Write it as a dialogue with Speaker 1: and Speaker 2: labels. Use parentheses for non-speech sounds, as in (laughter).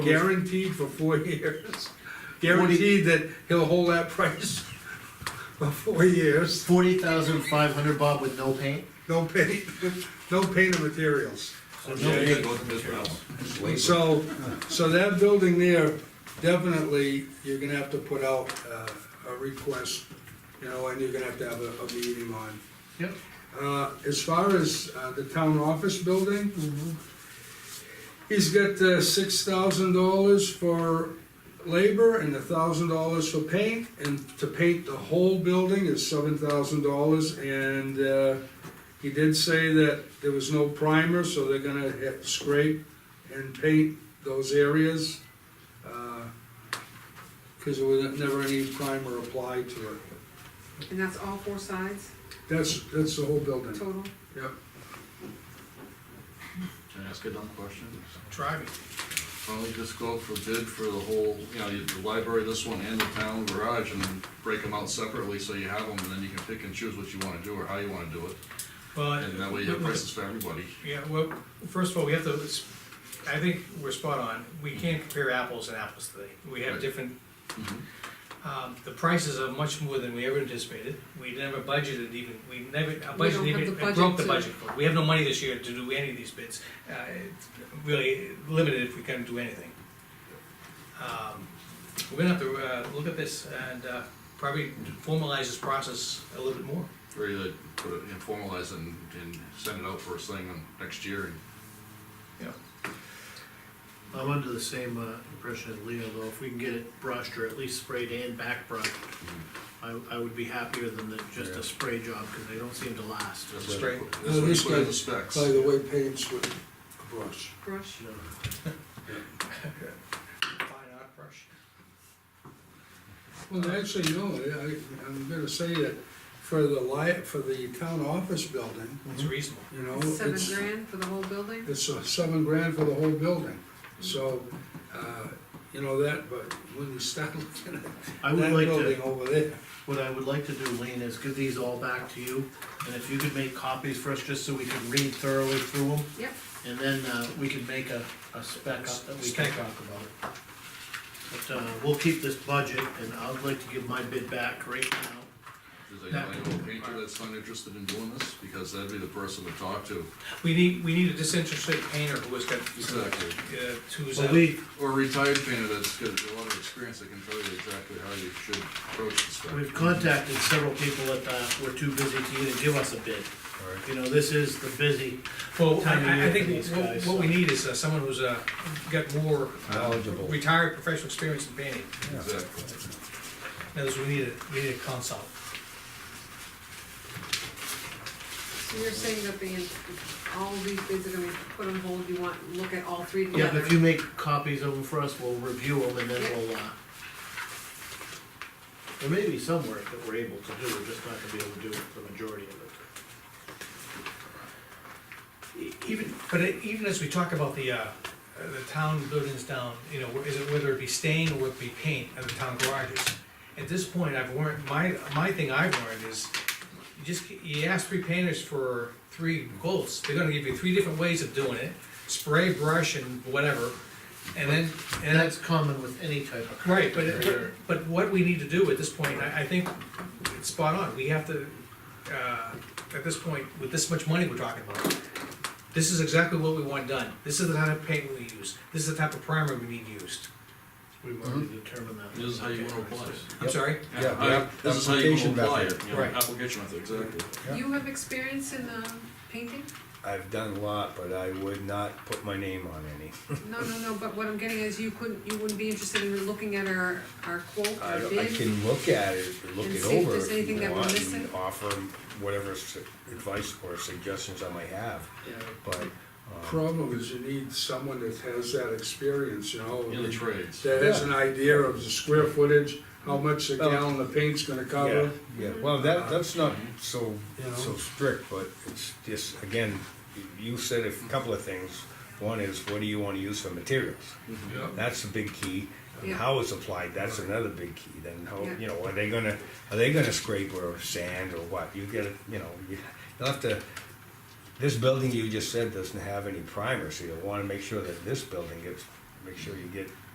Speaker 1: guaranteed for four years. Guaranteed that he'll hold that price for four years,
Speaker 2: Forty thousand five hundred, Bob, with no paint?
Speaker 1: no paint, no paint of materials.
Speaker 3: Yeah, you gotta go through this route. Wait.
Speaker 1: So, so that building there, definitely, you're gonna have to put out, uh, a request, you know, and you're gonna have to have a, a meeting on.
Speaker 2: Yep.
Speaker 1: Uh, as far as, uh, the town office building, he's got, uh, six thousand dollars for labor and a thousand dollars for paint, and to paint the whole building is seven thousand dollars, and, uh, he did say that there was no primer, so they're gonna hit- scrape and paint those areas, because there was never any primer applied to it.
Speaker 4: And that's all four sides
Speaker 1: That's, that's the whole building.
Speaker 4: total?
Speaker 1: Yep.
Speaker 3: Can I ask a dumb question?
Speaker 5: Driving.
Speaker 3: Why don't we just go out for bid for the whole, you know, the library, this one, and the town garage, and break them out separately, so you have them, and then you can pick and choose what you wanna do or how you wanna do it,
Speaker 5: Well,
Speaker 3: and that way you have prices for everybody.
Speaker 5: Yeah, well, first of all, we have to, it's- I think we're spot on, we can't compare apples and apples today. We have
Speaker 3: Right.
Speaker 5: different,
Speaker 3: Mhm.
Speaker 5: um, the prices are much more than we ever anticipated. We never budgeted even, we never, our
Speaker 4: We
Speaker 5: budget
Speaker 4: don't have
Speaker 5: even,
Speaker 4: the
Speaker 5: I broke the
Speaker 4: budget
Speaker 5: budget. We have no money this year to do any of these bids, uh, it's really limited if we can do anything. Um, We're gonna have to, uh, look at this and, uh, probably formalize this process a little bit more.
Speaker 3: Or either uh, put it, and formalize and, and send it out for a thing on next year, and
Speaker 5: Yeah.
Speaker 2: I'm under the same uh, impression as Leo, though, if we can get it brushed or at least sprayed and back brushed, I, I would be happier than the, just
Speaker 3: Yeah.
Speaker 2: a spray job, cause they don't seem to last.
Speaker 3: that's
Speaker 5: That's
Speaker 3: what you
Speaker 5: right.
Speaker 3: put,
Speaker 1: No,
Speaker 3: that's what you
Speaker 1: this
Speaker 3: put in
Speaker 1: guy-
Speaker 3: the specs.
Speaker 1: By the way, paints with a brush.
Speaker 4: Brush?
Speaker 2: You know,
Speaker 5: Fine art brush.
Speaker 1: Well, actually, no, I, I'm gonna say that for the li, for the town office building,
Speaker 5: It's reasonable.
Speaker 1: you know,
Speaker 4: Seven
Speaker 1: it's,
Speaker 4: grand for the whole building?
Speaker 1: it's uh, seven grand for the whole building. So, uh, you know, that, but when you start (laughs) looking at
Speaker 2: I would
Speaker 1: that
Speaker 2: like
Speaker 1: building
Speaker 2: to,
Speaker 1: over there,
Speaker 2: what I would like to do, Lean, is give these all back to you, and if you could make copies for us, just so we can read thoroughly through them,
Speaker 4: Yep,
Speaker 2: and then, uh, we can make a, a spec up that we can
Speaker 5: Spec.
Speaker 2: talk about. But, uh, we'll keep this budget, and I'd like to give my bid back right now.
Speaker 3: Does anybody know a painter that's not interested in doing this, because that'd be the person to talk to.
Speaker 5: We need, we need a disinterested painter who has got, uh,
Speaker 3: Exactly.
Speaker 5: who's,
Speaker 2: Well,
Speaker 5: uh,
Speaker 2: we,
Speaker 3: Or a retired painter that's got a lot of experience, that can tell you exactly how you should approach the stuff.
Speaker 2: We've contacted several people that uh, were too busy to even give us a bid. You know, this is the busy,
Speaker 5: well,
Speaker 2: Time of
Speaker 5: I, I- I
Speaker 2: year for
Speaker 5: think
Speaker 2: these
Speaker 5: what,
Speaker 2: guys,
Speaker 5: what we
Speaker 2: so.
Speaker 5: need is uh, someone who's, uh, got more uh,
Speaker 6: Knowledgeable.
Speaker 5: retired professional experience in painting.
Speaker 3: Exactly.
Speaker 5: In other words, we need a, we need a consult.
Speaker 4: so you're saying that the, all these bids are gonna be put on hold, you want, look at all three
Speaker 2: yeah,
Speaker 4: together?
Speaker 2: if you make copies of them for us, we'll review them and then we'll, uh, there may be some work that we're able to do, we're just not gonna be able to do the majority of it.
Speaker 5: E- Even, but e- even as we talk about the, uh, uh, the town buildings down, you know, wh- is it whether it be stain or whether it be paint at the town garages? At this point, I've learned, my, my thing I've learned is, you just, you ask three painters for three goals, they're gonna give you three different ways of doing it, spray, brush, and whatever, and then, and
Speaker 2: And
Speaker 5: that's,
Speaker 2: that's common with any type of.
Speaker 5: right, but, it-
Speaker 2: contractor.
Speaker 5: but- but what we need to do at this point, I, I think it's spot on, we have to, uh, at this point, with this much money we're talking about, this is exactly what we want done, this is the type of paint we use, this is the type of primer we need used,
Speaker 2: We've already determined that.
Speaker 3: This is how you wanna apply it.
Speaker 5: I'm sorry?
Speaker 6: Yeah,
Speaker 3: I-
Speaker 6: yeah,
Speaker 3: This is how you
Speaker 6: application
Speaker 3: wanna apply
Speaker 6: method.
Speaker 3: it, you know,
Speaker 5: Right.
Speaker 3: application method, exactly.
Speaker 6: Yeah.
Speaker 4: You have experience in, um, painting?
Speaker 6: I've done a lot, but I would not put my name on any.
Speaker 4: No, no, no, but what I'm getting is you couldn't, you wouldn't be interested in looking at our, our quote,
Speaker 6: I,
Speaker 4: our
Speaker 6: I
Speaker 4: bid?
Speaker 6: can look at it, look
Speaker 4: And
Speaker 6: it
Speaker 4: see if
Speaker 6: over
Speaker 4: there's
Speaker 6: if
Speaker 4: anything
Speaker 6: you
Speaker 4: that we're
Speaker 6: want,
Speaker 4: missing?
Speaker 6: and offer whatever s- advice or suggestions I might have,
Speaker 2: Yeah,
Speaker 6: but.
Speaker 1: problem is you need someone that has that experience, you know?
Speaker 3: In the trades.
Speaker 1: That has an idea of the square footage, how much a gallon of paint's gonna
Speaker 6: Yeah,
Speaker 1: cover.
Speaker 6: yeah, well, that, that's not so,
Speaker 1: Mm-hmm. You know?
Speaker 6: so strict, but it's just, again, you said a couple of things. One is, what do you wanna use for materials?
Speaker 1: Yeah.
Speaker 6: That's a big key. And
Speaker 4: Yeah.
Speaker 6: how it's applied, that's another big key. Then how,
Speaker 4: Yeah.
Speaker 6: you know, are they gonna, are they gonna scrape or sand or what? You get, it, you know, you- you'll have to, this building you just said doesn't have any primer, so you'll wanna make sure that this building gets make sure you get